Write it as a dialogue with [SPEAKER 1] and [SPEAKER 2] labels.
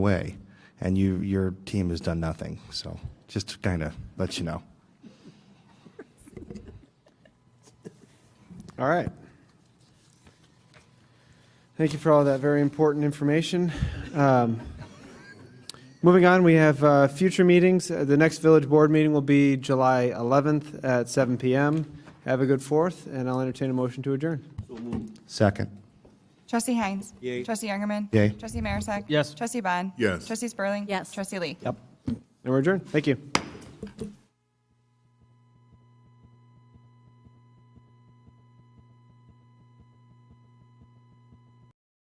[SPEAKER 1] way, and you, your team has done nothing. So just to kind of let you know.
[SPEAKER 2] All right. Thank you for all that very important information. Um, Moving on, we have uh, future meetings. Uh, The next village board meeting will be July 11th at 7 PM. Have a good Fourth, and I'll entertain a motion to adjourn.
[SPEAKER 1] Second.
[SPEAKER 3] Trustee Heinz.
[SPEAKER 2] Yay.
[SPEAKER 3] Trustee Youngerman.
[SPEAKER 1] Yay.
[SPEAKER 3] Trustee Marisak.
[SPEAKER 2] Yes.
[SPEAKER 3] Trustee Bond.
[SPEAKER 4] Yes.
[SPEAKER 3] Trustee Spurling.
[SPEAKER 5] Yes.
[SPEAKER 3] Trustee Lee.
[SPEAKER 2] And we're adjourned. Thank you.